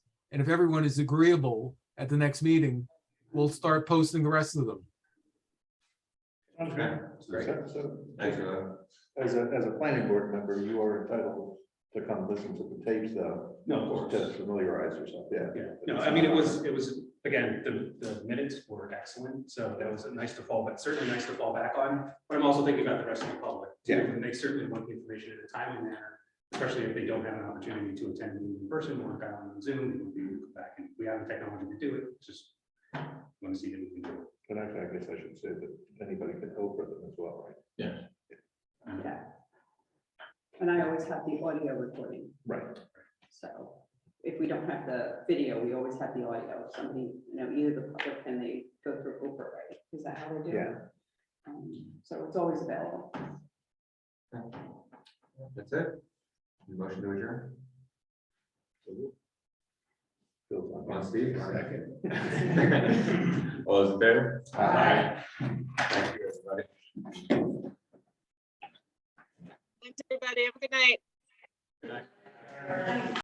And if everyone is agreeable at the next meeting, we'll start posting the rest of them. Okay. Great. So- So, Thanks for that. as a, as a planning board member, you are entitled to come listen to the tapes though, No, of or course. to familiarize yourself, yeah. Yeah, no, I mean, it was, it was, again, the, the minutes were excellent, so that was nice to fall, but certainly nice to fall back on. But I'm also thinking about the rest of the public, too, Yeah. and they certainly want the information in a timely manner, especially if they don't have an opportunity to attend in person or got on Zoom, they would be able to go back and we have the technology to do it, just want to see if we can do it. And actually, I guess I should say that anybody can over them as well, right? Yeah. And I always have the audio recording, Right. so if we don't have the video, we always have the audio. If Somebody, you know, either the public and they go through Uber, right? Is that how we do it? Yeah. Um, So it's always available. That's it? Motion to adjourn? Feels Come on, like- Steve. Second. All those in favor? Aye. Thank you, everybody. Thanks, everybody. Have a good night.